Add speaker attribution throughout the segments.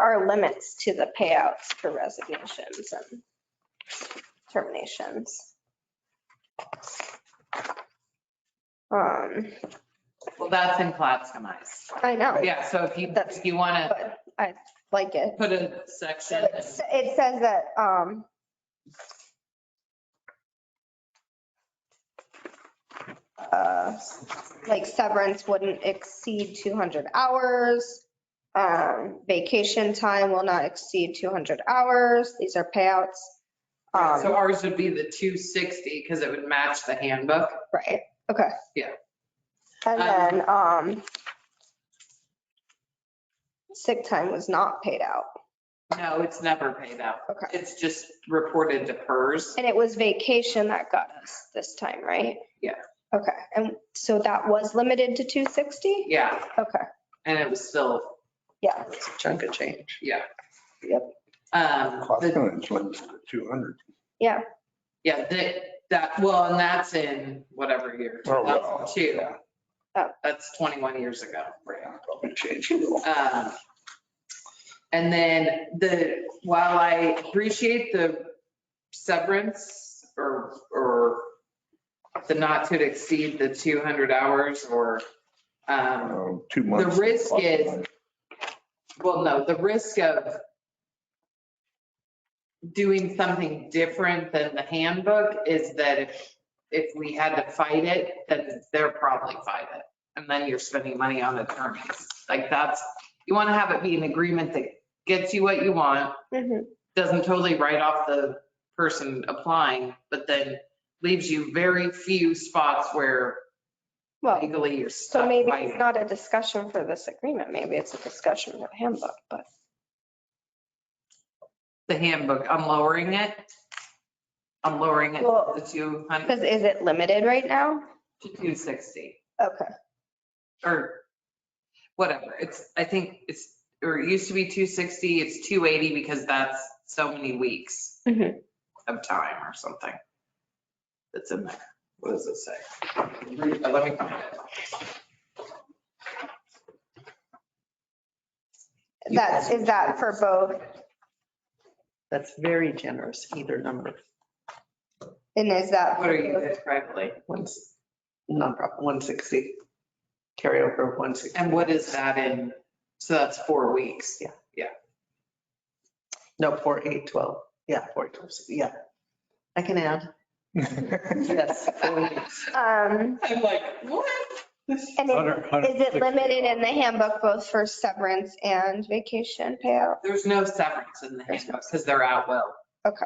Speaker 1: are limits to the payouts for resignations and terminations. Um,
Speaker 2: Well, that's in Clatskamized.
Speaker 1: I know,
Speaker 2: Yeah, so if you,
Speaker 1: That's-
Speaker 2: if you want
Speaker 1: but I like it.
Speaker 2: to put a section,
Speaker 1: It s- it says that, um, uh, like severance wouldn't exceed 200 hours. Um, vacation time will not exceed 200 hours. These are payouts.
Speaker 2: so
Speaker 1: Um,
Speaker 2: ours would be the 260 because it would match the handbook.
Speaker 1: right, okay.
Speaker 2: Yeah.
Speaker 1: And
Speaker 2: Um,
Speaker 1: then, um, sick time was not paid out.
Speaker 2: No, it's never paid out.
Speaker 1: Okay.
Speaker 2: It's just reported to hers.
Speaker 1: And it was vacation that got us this time, right?
Speaker 2: Yeah.
Speaker 1: Okay, and so that was limited to 260?
Speaker 2: Yeah,
Speaker 1: Okay,
Speaker 2: and it was still,
Speaker 1: yeah,
Speaker 3: It's a chunk of change.
Speaker 2: yeah.
Speaker 1: Yep.
Speaker 2: Um,
Speaker 4: Cost
Speaker 2: the-
Speaker 4: of limited to 200.
Speaker 2: yeah, that, that, well, and that's in whatever year,
Speaker 4: Oh, well,
Speaker 2: 2002.
Speaker 4: yeah.
Speaker 1: Oh.
Speaker 2: That's 21 years ago.
Speaker 4: Right, I'll Probably changed a little.
Speaker 2: Um, And then the, while I appreciate the severance or, or the not to exceed the 200 hours or, um,
Speaker 4: Um, Two months.
Speaker 2: risk is- well, no, the risk of doing something different than the handbook is that if, if we had to fight it, then they're probably fight it. And then you're spending money on attorneys. Like that's, you want to have it be an agreement that gets you what you want, Mm-hmm.
Speaker 1: mhm,
Speaker 2: doesn't totally write off the person applying, but then leaves you very few spots where
Speaker 1: well,
Speaker 2: legally you're stuck.
Speaker 1: so maybe it's
Speaker 2: fighting.
Speaker 1: not a discussion for this agreement, maybe it's a discussion for the handbook, but,
Speaker 2: The handbook, I'm lowering it. I'm lowering it
Speaker 1: Well-
Speaker 2: to 200,
Speaker 1: because is it limited right now?
Speaker 2: to 260
Speaker 1: Okay,
Speaker 2: or whatever. It's, I think it's, or it used to be 260, it's 280 because that's so many weeks
Speaker 1: Mhm.
Speaker 2: of time or something. That's in there. What does it say? Uh, Let me find it.
Speaker 1: that's, is that for both,
Speaker 3: That's very generous, either number,
Speaker 1: and is that?
Speaker 2: What
Speaker 1: for
Speaker 2: are you
Speaker 1: both?
Speaker 2: guys privately?
Speaker 3: one's nonprofit, 160, carryover 160.
Speaker 2: And what is that in? So that's four weeks.
Speaker 3: No, 4, 8, 12, yeah, 4, 12, yeah. I can add, yes. four weeks.
Speaker 1: Um,
Speaker 2: I'm like, what?
Speaker 1: and is is it limited in the handbook both for severance and vacation payout?
Speaker 2: There's no severance in the handbook because they're out well.
Speaker 1: Okay.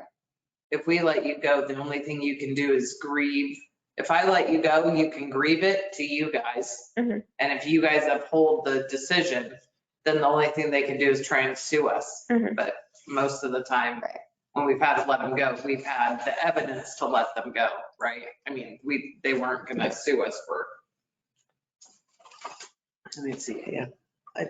Speaker 2: If we let you go, the only thing you can do is grieve. If I let you go, you can grieve it to you guys. And
Speaker 1: Mhm.
Speaker 2: if you guys uphold the decision, then the only thing they can do is try and sue us.
Speaker 1: Mhm.
Speaker 2: But most of the time,
Speaker 1: Right.
Speaker 2: when we've had to let them go, we've had the evidence to let them go, right? I mean, we, they weren't gonna sue us for. Let me see.
Speaker 3: Yeah. I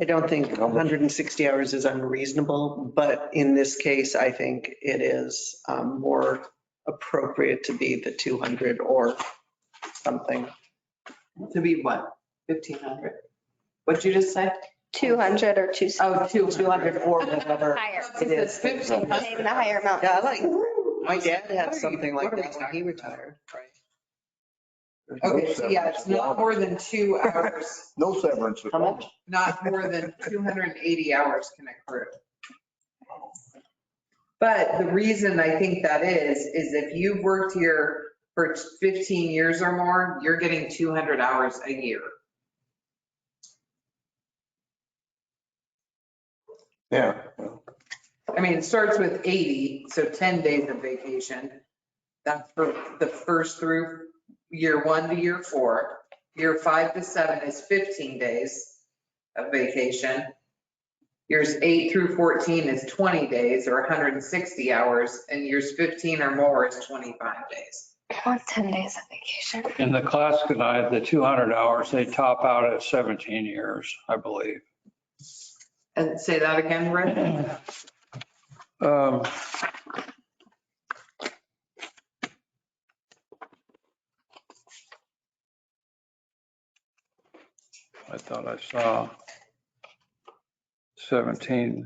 Speaker 3: I don't think 160 hours is unreasonable, but in this case, I think it is um, more appropriate to be the 200 or something.
Speaker 2: To be what? 1,500? What'd you just say?
Speaker 1: 200 or 260?
Speaker 2: Oh, 200.
Speaker 3: 200 or whatever.
Speaker 1: Higher,
Speaker 3: It is.
Speaker 1: saying the higher amount.
Speaker 3: Yeah, I like, my
Speaker 2: was like,
Speaker 3: dad
Speaker 2: what are
Speaker 3: had
Speaker 2: you-
Speaker 3: something
Speaker 2: what
Speaker 3: like
Speaker 2: are we
Speaker 3: that when he
Speaker 2: talking
Speaker 3: retired.
Speaker 2: Okay, so yeah, it's not more than two hours,
Speaker 4: No severance. at
Speaker 3: How
Speaker 4: all.
Speaker 3: much?
Speaker 2: not more than 280 hours can accrue. But the reason I think that is, is if you've worked here for 15 years or more, you're getting 200 hours a year.
Speaker 4: Yeah.
Speaker 2: I mean, it starts with 80, so 10 days of vacation. That's for the first through year one to year four. Year five to seven is 15 days of vacation. Years eight through 14 is 20 days or 160 hours, and years 15 or more is 25 days.
Speaker 1: I want 10 days of vacation.
Speaker 5: In the class that I had, the 200 hours, they top out at 17 years, I believe.
Speaker 2: And say that again, Rick?
Speaker 5: Um, I thought I saw 17